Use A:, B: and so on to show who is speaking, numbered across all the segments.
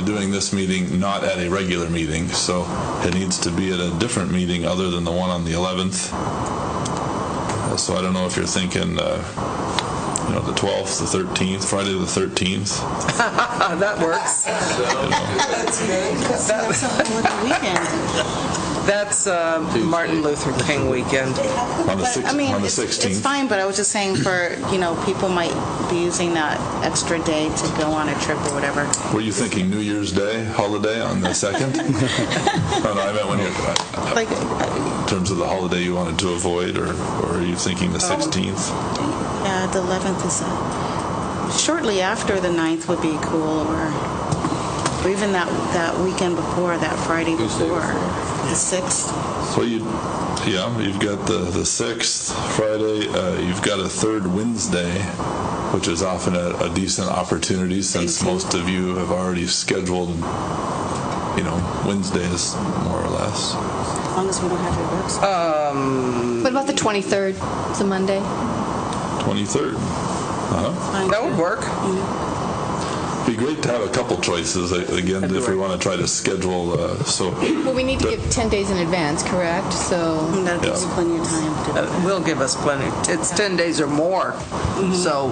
A: doing this meeting not at a regular meeting, so it needs to be at a different meeting other than the one on the 11th. Uh, So I don't know if you're thinking, uh, you know, the 12th, the 13th, Friday the 13th.
B: Uh, That works.
C: That's a holiday weekend.
B: That's uh, Martin Luther King weekend.
A: On the
C: But,
A: six-
C: I mean,
A: on the
C: it's-
A: 16th.
C: It's fine, but I was just saying for, you know, people might be using that extra day to go on a trip or whatever.
A: Were you thinking New Year's Day holiday on the 2nd? No, no, I meant when you're, uh,
C: Like,
A: in terms of the holiday you wanted to avoid, or or are you thinking the
C: Um,
A: 16th?
C: yeah, the 11th is, uh, shortly after the 9th would be cool, or or even that, that weekend before, that Friday before. The 6th.
A: Well, you, yeah, you've got the the 6th, Friday, uh, you've got a third Wednesday, which is often a a decent opportunity since most of you have already scheduled, you know, Wednesdays, more or less.
C: As long as we don't have your work
B: Uh,
C: session.
B: Um,
D: What about the 23rd? It's a Monday.
A: 23rd. Uh-huh.
B: That would work.
A: Be great to have a couple choices, uh, again, if we want to try to schedule, uh, so
D: Well, we need to give 10 days in advance, correct? So
C: That gives you plenty of time to.
B: Uh, Will give us plenty. It's 10 days or more. So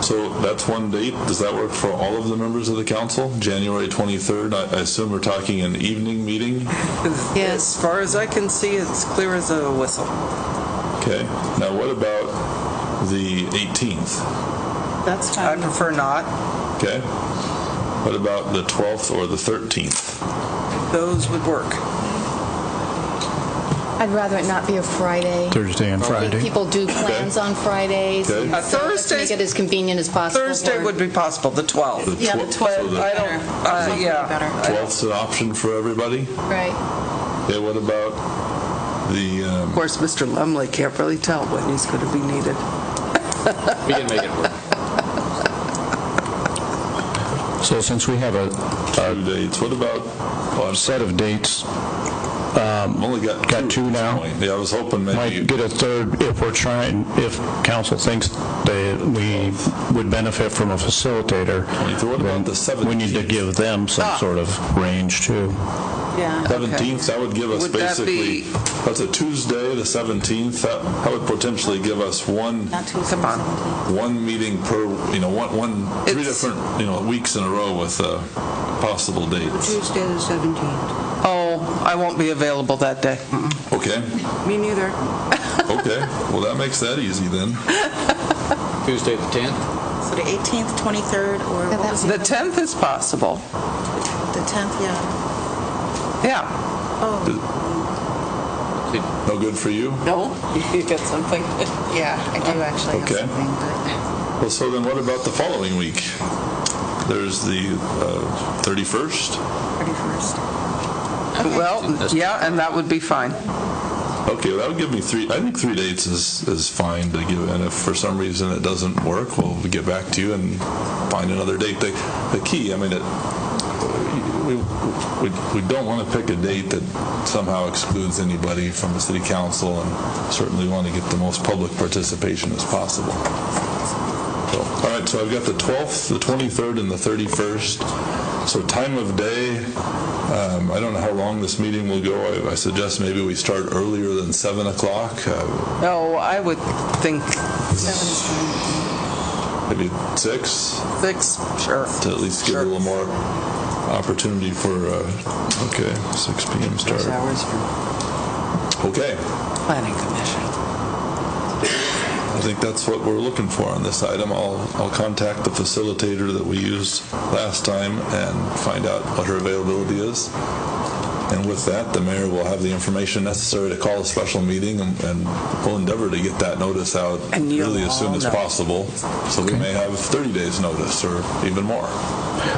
A: So that's one date. Does that work for all of the members of the council? January 23rd? I I assume we're talking an evening meeting?
B: as
D: Yes.
B: far as I can see, it's clear as a whistle.
A: Okay. Now, what about the 18th?
C: That's
B: I
C: fine.
B: prefer not.
A: Okay? What about the 12th or the 13th?
B: Those would work.
D: I'd rather it not be a Friday.
E: Thursday and
D: I think
E: Friday.
D: People do plans on Fridays.
A: Okay.
D: and
A: Uh,
D: so let's
B: Thursday's-
D: Make it as convenient as possible.
B: Thursday
D: for-
B: would be possible, the 12th.
C: Yeah, the
A: twel-
C: 12th.
A: so the
B: I don't, uh, yeah.
A: 12th's an option for everybody?
D: Right.
A: Okay, what about the, um,
B: Of course, Mr. Lumley can't really tell when he's going to be needed.
F: We can make it work.
E: So since we have a
A: two dates? What about, oh, I'm sorry,
E: set of dates,
A: I've only got two.
E: Got two
A: at this
E: now?
A: point. Yeah, I was hoping maybe. you-
E: might get a third if we're trying, if council thinks that we would benefit from a facilitator.
A: So what about the
E: then We need to
A: 17th?
E: give them
F: Ah.
E: some sort of range, too.
C: Yeah.
A: Seventeenth, that would give us
B: Would that
A: basically,
B: be-
A: that's a Tuesday, the seventeenth, that, that would potentially give us one,
C: Not Tuesday,
B: Come on.
C: 17th.
A: one meeting per, you know, one, one, three
B: It's-
A: different, you know, weeks in a row with uh, possible dates.
G: Tuesday the 17th.
B: Oh, I won't be available that day.
A: Okay,
G: Me neither.
A: okay, well, that makes that easy then.
F: Tuesday the 10th?
C: So the 18th, 23rd, or what was
B: The
C: it?
B: 10th is possible.
C: The 10th, yeah.
B: Yeah.
A: No good for you?
B: No? You got something?
C: Yeah, I do actually have
A: Okay.
C: something, but
A: Well, so then what about the following week? There's the uh, thirty-first?
C: 31st.
B: Well, yeah, and that would be fine.
A: Okay, well, that would give me three, I think three dates is, is fine to give, and if for some reason it doesn't work, we'll get back to you and find another date. The, the key, I mean, it, we, we, we don't want to pick a date that somehow excludes anybody from the city council, and certainly want to get the most public participation as possible. So, all right, so I've got the 12th, the 23rd, and the 31st. So time of day, um, I don't know how long this meeting will go. I I suggest maybe we start earlier than 7 o'clock, uh,
B: No, I would think
A: maybe 6,
B: six, sure.
A: to at least give a
B: Sure.
A: little more opportunity for, uh, okay, 6 PM
B: Six
A: start.
B: hours for
A: Okay,
B: planning commission.
A: I think that's what we're looking for on this item. I'll, I'll contact the facilitator that we used last time and find out what her availability is. And with that, the mayor will have the information necessary to call a special meeting, and and we'll endeavor to get that notice out
B: And you'll
A: really as soon
B: all
A: as
B: know.
A: possible. So we may have 30 days' notice or even more.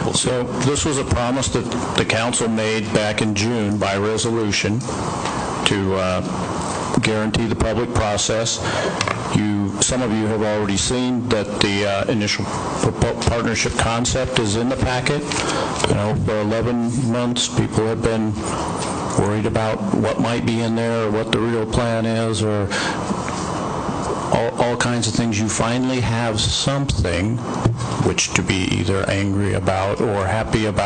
A: We'll see.
E: So this was a promise that the council made back in June by resolution to uh, guarantee the public process. You, some of you have already seen that the uh, initial propo- partnership concept is in the packet. You know, for 11 months, people have been worried about what might be in there, or what the real plan is, or all, all kinds of things, you finally have something which to be either angry about or happy about.